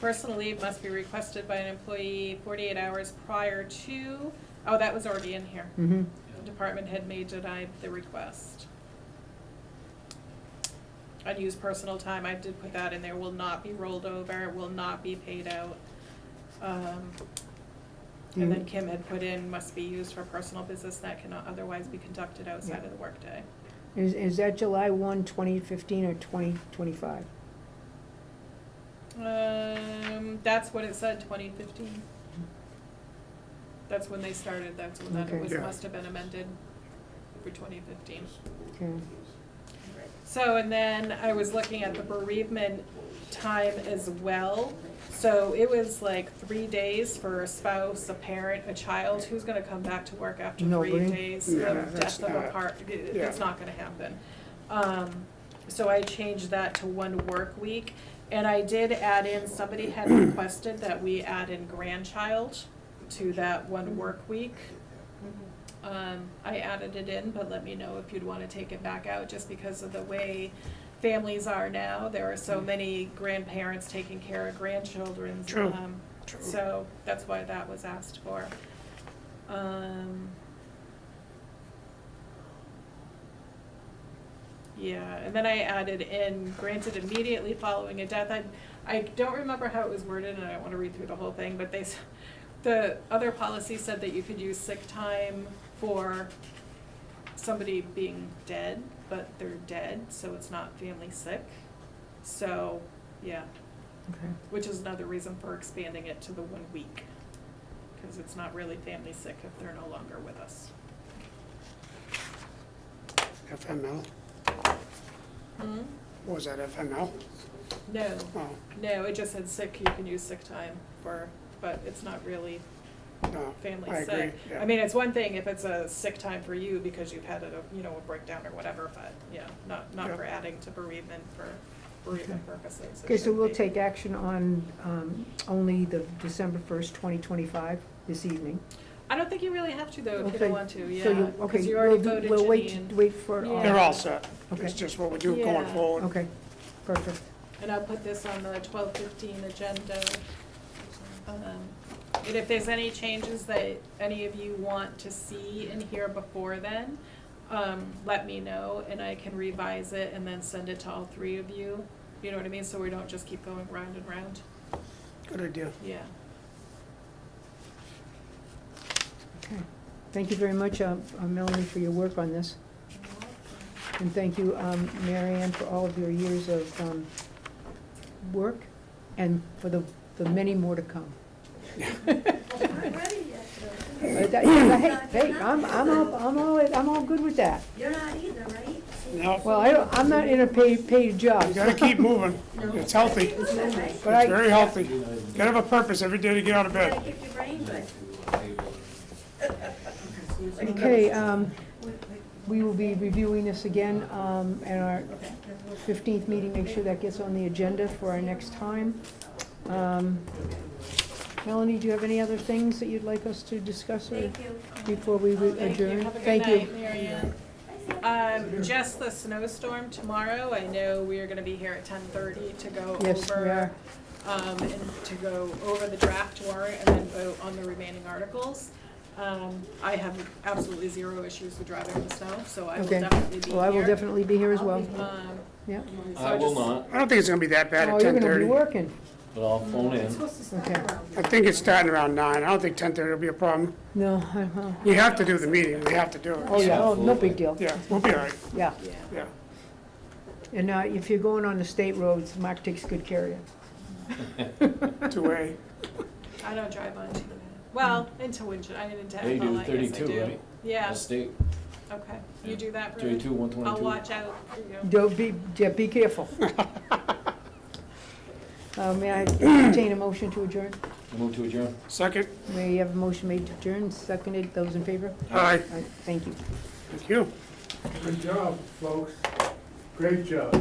Personal leave must be requested by an employee forty-eight hours prior to, oh, that was already in here. Mm-hmm. The Department head may deny the request. Unused personal time, I did put that in there, will not be rolled over, will not be paid out. Um, And then Kim had put in, must be used for personal business that cannot otherwise be conducted outside of the workday. Is, is that July one, twenty fifteen, or twenty twenty-five? Um, that's what it said, twenty fifteen. That's when they started, that's when that, Okay. it was, Yeah. must have been amended for twenty fifteen. Okay. So, and then I was looking at the bereavement time as well. So it was like three days for a spouse, a parent, a child, who's gonna come back to work after three Nobody. days Yeah, of that's death of a not- part, it- it's yeah. not gonna happen. Um, so I changed that to one work week, and I did add in, somebody had requested that we add in grandchild to that one work week. Um, I added it in, but let me know if you'd wanna take it back out, just because of the way families are now, there are Mm. so many grandparents taking care of grandchildren. True. Um, So, that's why that was asked for. Um. Yeah, and then I added in granted immediately following a death, I, I don't remember how it was worded, and I don't wanna read through the whole thing, but they, s- the other policy said that you could use sick time for somebody being dead, but they're dead, so it's not family sick. So, yeah, Okay. which is another reason for expanding it to the one week, because it's not really family sick if they're no longer with us. FML, what was that, FML? No, Oh, no, it just said sick, you can use sick time for, but it's not really no, family I sick. agree, yeah. I mean, it's one thing if it's a sick time for you because you've had a, you know, a breakdown or whatever, but, yeah, not, not Yeah. for adding to bereavement for bereavement purposes. It Okay, so should we'll be. take action on, um, only the December first, twenty twenty-five, this evening. I don't think you really have to though, if you Okay, don't want to, yeah. So you, okay, Because you we'll already do, voted we'll wait, Janine. to- wait for all. They're all set, Okay. it's just what we do going Yeah. forward. Okay, perfect. And I'll put this on the twelve fifteen agenda. Um, And if there's any changes that any of you want to see and hear before then, um, let me know and I can revise it and then send it to all three of you. You know what I mean? So we don't just keep going round and round. Good idea. Yeah. Okay. Thank you very much, uh, uh, Melanie, for your work on this. And thank you, um, Mary Ann, for all of your years of um, work and for the, the many more to come. I'm ready yet, though. But that- Hey, hey, I'm, I'm all, I'm all, I'm all good with that. You're not either, right? No. Well, I don't, I'm not in a paid, paid job. You gotta keep moving, it's healthy, it's Is that right? But I- very healthy. You Gotta have a purpose every day to get out of Gotta bed. keep your brain good. Okay, um, we will be reviewing this again, um, at our fifteenth meeting, make sure that gets on the agenda for our next time. Um, Melanie, do you have any other things that you'd like us to discuss or Thank you. before we re- Thank you, adjourn? have a good night, Mary Ann. Um, just the snowstorm tomorrow, I know we are gonna be here at ten thirty to go over. Yes, we are. Um, and to go over the draft warrant and then vote on the remaining articles. Um, I have absolutely zero issues with driving in the snow, so I will Okay. definitely be here. Well, Oh, I will definitely be here as well, Um, yeah. so I will just- not, I don't think it's gonna be that bad Oh, at you're ten gonna be thirty. working, but I'll Mm. phone in. okay. I think it's starting around nine, I don't think ten thirty will be a problem. No, uh-huh. We have to do the meeting, we have to do oh, it. yeah, oh, no big deal, Yeah, we'll be all right, yeah. Yeah, yeah. And, uh, if you're going on the state roads, Mark takes good care of you. Two-way, I don't drive on too well, into Winchester, I didn't, They do well, I guess I do. 32, right? Yeah, I'll stay okay, you do that, Brenda? thirty-two, one I'll twenty-two. watch out for you. Don't be, yeah, be careful. Uh, May I entertain a motion to adjourn? Move to adjourn. second, May you have a motion made to adjourn, seconded, those in favor? aye, All right, Thank you. thank you. Good job, folks. Great job.